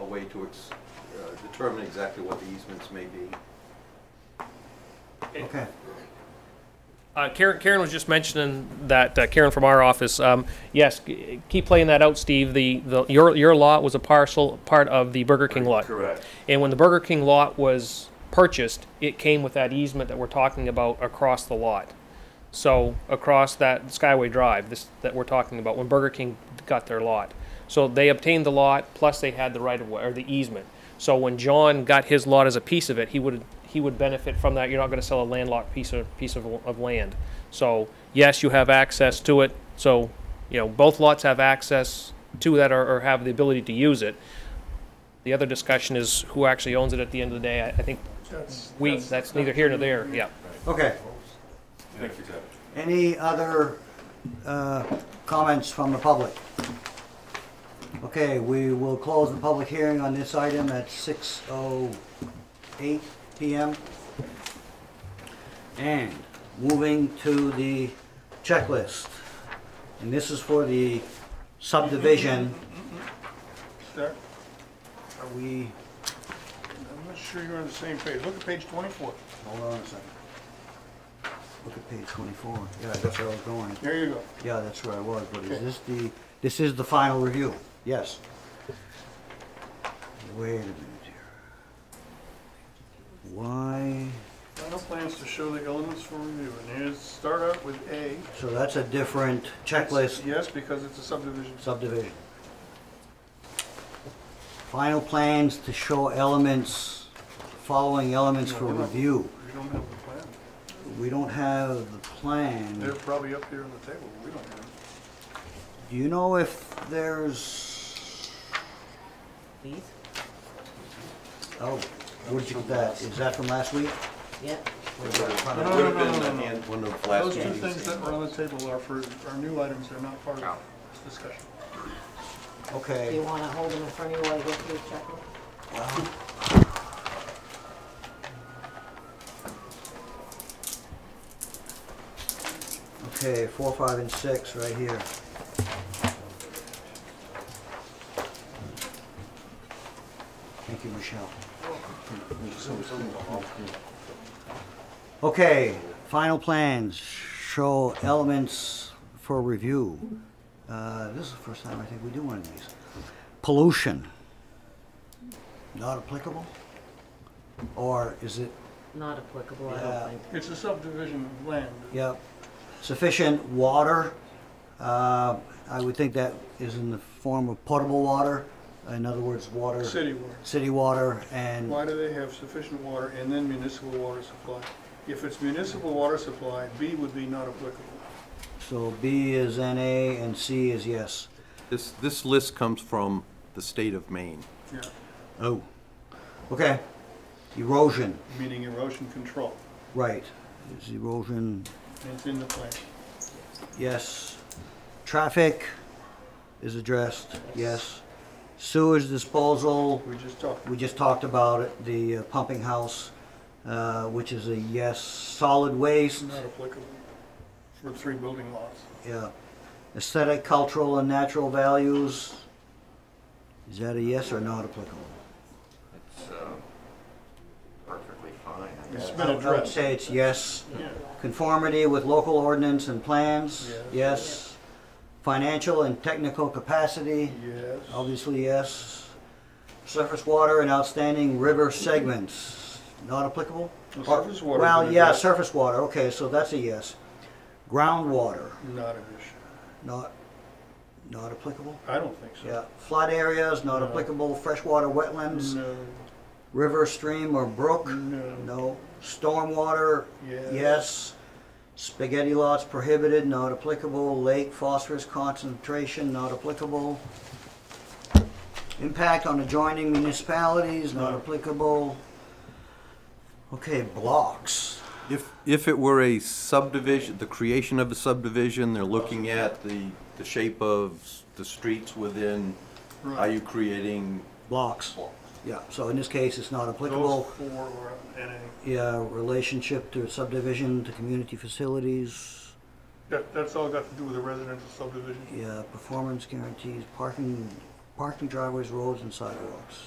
way to ex- uh, determine exactly what the easements may be. Okay. Uh, Karen, Karen was just mentioning that uh, Karen from our office. Um, yes, g- keep playing that out, Steve. The, the your your lot was a parcel part of the Burger King lot, Correct. and when the Burger King lot was purchased, it came with that easement that we're talking about across the lot. So across that Skyway Drive, this that we're talking about, when Burger King got their lot, so they obtained the lot plus they had the right of way or the easement. So when John got his lot as a piece of it, he would he would benefit from that. You're not going to sell a landlocked piece of piece of, of land. So yes, you have access to it. So you know both lots have access to that or, or have the ability to use it. The other discussion is who actually owns it at the end of the day. I, I think we that's neither here nor there. Yeah. Okay. Any other uh, comments from the public? Okay, we will close the public hearing on this item at 6:08 PM. And moving to the checklist. And this is for the subdivision. That- Are we, I'm not sure you're on the same page. Look at page 24. hold on a second. Look at page 24. Yeah, that's where I was going. There you go. Yeah, that's where I was, but is this the, this is the final review? Yes. Wait a minute here. Why, Final plans to show the elements for review, and here's, start out with A. so that's a different checklist Yes, because it's a subdivision. subdivision. Final plans to show elements, following elements for review. We don't have the plan. We don't have the They're plan. probably up here on the table. We don't have it. Do you know if there's, Please? oh, where'd you get that? Is that from last week? Yeah. No, no, Would have no, been no, at the no. end, one of the last Those two meetings. things that were on the table are for, are new items. They're not part of this discussion. Okay. Do you wanna hold them in front of you while I go through the checklist? Okay, four, five, and six, right here. Thank you, Michelle. Okay, final plans show elements for review. Uh, This is the first time I think we do one of these. Pollution, not applicable? Or is it, Not applicable, I Yeah. don't think. It's a subdivision of land. Yep. Sufficient water, uh, I would think that is in the form of potable water, in other words, water. City water. City water and, Why do they have sufficient water and then municipal water supply? If it's municipal water supply, B would be not applicable. so B is NA and C is yes. This, this list comes from the state of Maine. Yeah, Oh. Okay. Erosion, meaning erosion control. right. Is erosion, It's in the plan. yes. Traffic is addressed, yes. Sewage disposal, We just talked. We just talked about it, the uh, pumping house, uh, which is a yes, solid waste, Not applicable for three building lots. yeah. Aesthetic, cultural, and natural values. Is that a yes or not applicable? It's uh, perfectly fine. I It's been would- I would addressed. say it's yes. Yeah. Conformity with local ordinance and plans, Yes. yes. Financial and technical capacity, Yes. obviously yes. Surface water and outstanding river segments, not applicable? The surface water Well, would yeah, address- surface water, okay, so that's a yes. Groundwater, Not an issue. not, not applicable? I don't think so. Yeah, flood areas, not No. applicable, freshwater wetlands, No, river, stream, or brook? No. No. Stormwater? Yes. Yes. Spaghetti lots prohibited, not applicable, lake phosphorus concentration, not applicable. Impact on adjoining municipalities, not No. applicable. Okay, blocks. If, if it were a subdivision, the creation of a subdivision, they're looking at the, the shape of s- the streets within, are Right. you creating? Blocks. Yeah, so in this case, it's not those applicable. four were NA. Yeah, relationship to subdivision, to community facilities, That, that's all got to do with the residential subdivision. uh, yeah, performance guarantees, parking, parking driveways, roads, and sidewalks.